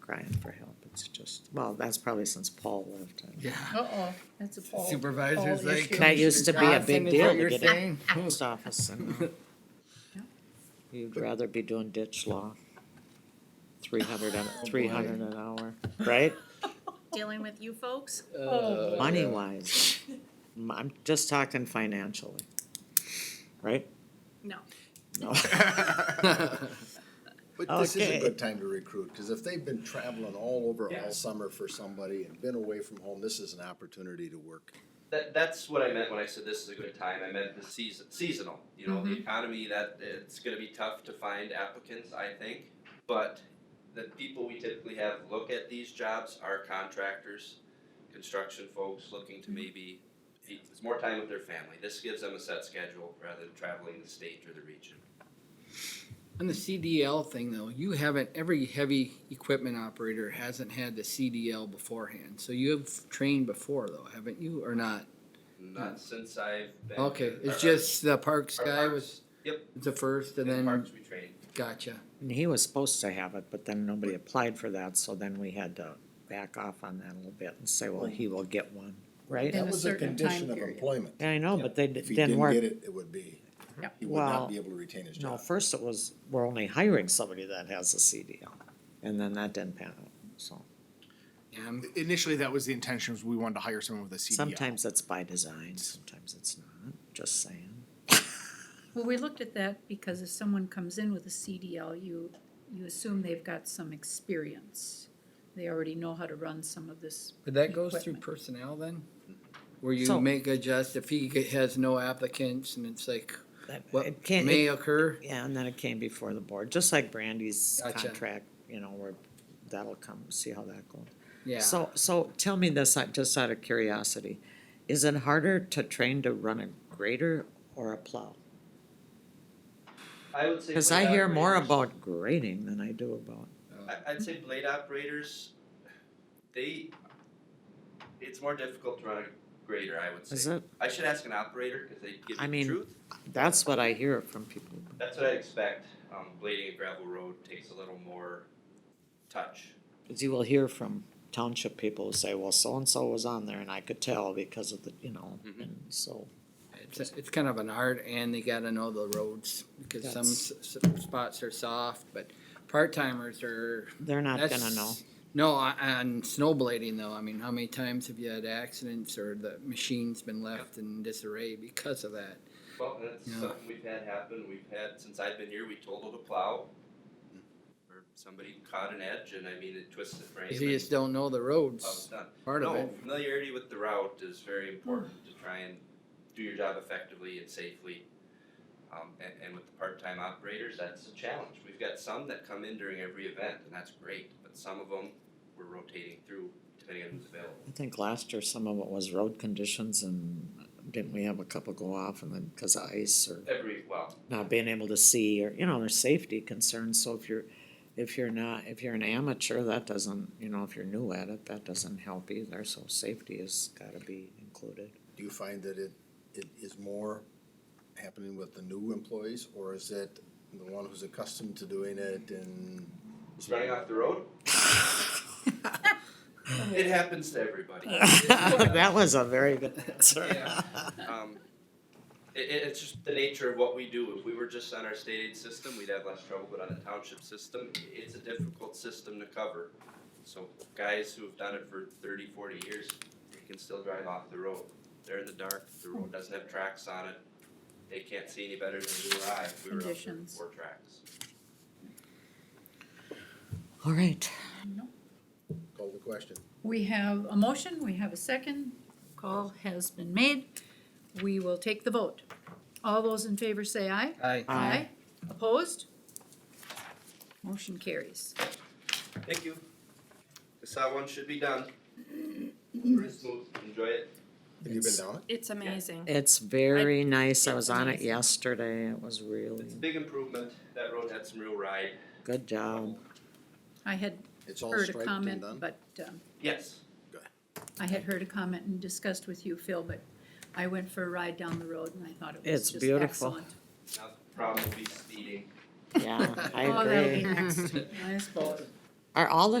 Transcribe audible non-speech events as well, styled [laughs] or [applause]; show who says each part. Speaker 1: crying for help, it's just, well, that's probably since Paul left. and
Speaker 2: Yeah.
Speaker 3: Uh-oh, that's a poll.
Speaker 2: Supervisors
Speaker 3: All
Speaker 2: like.
Speaker 3: issues.
Speaker 1: That used to be a big
Speaker 2: Johnson is
Speaker 1: deal
Speaker 2: what
Speaker 1: to
Speaker 2: you're
Speaker 1: get it.
Speaker 2: saying?
Speaker 1: Post office and, uh, you'd rather be doing ditch law. Three hundred an,
Speaker 4: Oh,
Speaker 1: three hundred an hour, right?
Speaker 5: dealing with you folks.
Speaker 2: Uh,
Speaker 3: Oh, boy.
Speaker 1: Money wise, I'm just talking financially, right?
Speaker 5: No.
Speaker 4: [laughs]
Speaker 1: No.
Speaker 4: But this is
Speaker 1: Okay.
Speaker 4: a good time to recruit, cause if they've been traveling all over
Speaker 6: Yeah.
Speaker 4: all summer for somebody and been away from home, this is an opportunity to work.
Speaker 6: That, that's what I meant when I said this is a good time. I meant the season, seasonal. You know,
Speaker 2: Mm-hmm.
Speaker 6: the economy that it's going to be tough to find applicants. I think, but the people we typically have look at these jobs are contractors, construction folks looking
Speaker 2: Mm-hmm.
Speaker 6: to maybe it's more time with their family. This gives them a set schedule rather than traveling the state or the region.
Speaker 2: On the CDL thing though, you haven't, every heavy equipment operator hasn't had the CDL beforehand, so you have trained before though, haven't you, or not?
Speaker 6: Not since I've been.
Speaker 2: Mm-hmm. Okay,
Speaker 6: our-
Speaker 2: it's just the parks
Speaker 6: our
Speaker 2: guy
Speaker 6: parks-
Speaker 2: was
Speaker 6: Yep.
Speaker 2: the first and
Speaker 6: in
Speaker 2: then,
Speaker 6: parks we train.
Speaker 2: gotcha.
Speaker 1: And he was supposed to have it, but then nobody applied for that, so then we had to back off on that a little bit and say, well, he will get one, right?
Speaker 3: In
Speaker 4: That
Speaker 3: a
Speaker 4: was a
Speaker 3: certain
Speaker 4: condition
Speaker 3: time
Speaker 4: of
Speaker 3: period.
Speaker 4: employment.
Speaker 1: Yeah, I know, but they d-
Speaker 4: If he
Speaker 1: didn't
Speaker 4: didn't
Speaker 1: work.
Speaker 4: get it, it would be,
Speaker 3: Yeah.
Speaker 4: he would not
Speaker 1: Well,
Speaker 4: be able to retain his
Speaker 1: No,
Speaker 4: job.
Speaker 1: first it was, we're only hiring somebody that has a CDL, and then that didn't pan out, so.
Speaker 2: Yeah, I'm-
Speaker 7: Um, Initially, that was the intention, was we wanted to hire someone with a CDL.
Speaker 1: Sometimes it's by design, sometimes it's not, just saying.
Speaker 3: Well, we looked at that because if someone comes in with a CDL, you, you assume they've got some experience. They already know how to run some of this.
Speaker 2: But that goes through
Speaker 3: equipment.
Speaker 2: personnel then? Where you
Speaker 1: So-
Speaker 2: make adjust if he g- has no applicants and it's like
Speaker 1: That-
Speaker 2: what
Speaker 1: it can't-
Speaker 2: may
Speaker 1: it-
Speaker 2: occur?
Speaker 1: Yeah, and then it came before the board, just like Brandy's
Speaker 2: Gotcha.
Speaker 1: contract, you know, where that'll come, see how that goes.
Speaker 2: Yeah.
Speaker 1: So, so tell me this, uh, just out of curiosity, is it harder to train to run a grader or a plow?
Speaker 6: I would say.
Speaker 1: Cause
Speaker 6: for
Speaker 1: I
Speaker 6: that
Speaker 1: hear more
Speaker 6: reason-
Speaker 1: about grading than I do about,
Speaker 2: Uh,
Speaker 6: I, I'd say blade operators, they, it's more difficult to run a grader, I would say.
Speaker 1: is it,
Speaker 6: I should ask an operator, cause they give
Speaker 1: I
Speaker 6: you
Speaker 1: mean-
Speaker 6: the truth.
Speaker 1: that's what I hear from people.
Speaker 6: That's what I'd expect. Um, blading a gravel road takes a little more touch.
Speaker 1: Cause you will hear from township people who say, well, so-and-so was on there and I could tell because of the, you know,
Speaker 6: Mhm.
Speaker 1: and so.
Speaker 2: It's, it's kind of an art and they gotta know the roads because some
Speaker 1: That's-
Speaker 2: s- s- spots are soft, but part timers are.
Speaker 1: They're not gonna
Speaker 2: that's-
Speaker 1: know,
Speaker 2: No, on, on snow blading though, I mean, how many times have you had accidents or the machine's been left in disarray because of that?
Speaker 6: Well, that's
Speaker 2: Yeah.
Speaker 6: something we've had happen. We've had, since I've been here, we totaled a plow. Or somebody caught an edge and I mean, it twisted the frame
Speaker 2: 'Cause
Speaker 6: and
Speaker 2: you just don't know the
Speaker 6: I was
Speaker 2: roads,
Speaker 1: Oh,
Speaker 6: done.
Speaker 2: part of
Speaker 6: no,
Speaker 2: it.
Speaker 6: familiarity with the route is very important to try and do your job effectively and safely. Um, and, and with the part-time operators, that's a challenge. We've got some that come in during every event, and that's great, but some of them we're rotating through depending on who's available.
Speaker 1: I think last year some of it was road conditions and didn't we have a couple go off and then, cause of ice or?
Speaker 6: Every, well,
Speaker 1: not being able to see or you know there's safety concerns so if you're if you're not if you're an amateur that doesn't you know if you're new at it that doesn't help either so safety has got to be included [laughs]
Speaker 4: Do you find that it, it is more happening with the new employees, or is it the one who's accustomed to doing it and?
Speaker 6: just running off the road, it happens to everybody.
Speaker 1: [laughs] that was a very good answer
Speaker 6: Yeah. [laughs] Um, it, it, it's just the nature of what we do. If we were just on our state aid system, we'd have less trouble, but on the township system, i- it's a difficult system to cover. So guys who've done it for 30, 40 years, they can still drive off the road. They're in the dark, the road doesn't have tracks on it. They can't see any better than you or I if we were out there with
Speaker 3: Conditions.
Speaker 6: four tracks.
Speaker 1: all right
Speaker 4: Call the oh, question.
Speaker 3: We have a motion, we have a second, call has been made. We will take the vote. All those in favor say aye.
Speaker 2: I,
Speaker 1: Aye.
Speaker 3: Opposed? Motion carries.
Speaker 6: Thank you. This how one should be done. Pretty smooth. Enjoy it.
Speaker 4: Have you been
Speaker 1: It's-
Speaker 4: down it?
Speaker 5: It's amazing.
Speaker 1: it's very nice i
Speaker 5: it's
Speaker 1: was on it
Speaker 5: amazing.
Speaker 1: yesterday it was really
Speaker 6: It's a big improvement. That road had some real ride.
Speaker 1: good job
Speaker 3: I had
Speaker 4: It's all
Speaker 3: heard a
Speaker 4: striped and
Speaker 3: comment,
Speaker 4: done?
Speaker 3: but, um,
Speaker 6: Yes.
Speaker 3: I had heard a comment and discussed with you, Phil, but I went for a ride down the road and I thought it
Speaker 1: It's
Speaker 3: was just
Speaker 1: beautiful.
Speaker 3: excellent.
Speaker 6: Now the problem will be speeding.
Speaker 1: yeah i
Speaker 3: Oh, that'll be
Speaker 1: agree
Speaker 2: [laughs]
Speaker 1: [laughs]
Speaker 3: next, I suppose.
Speaker 1: are all the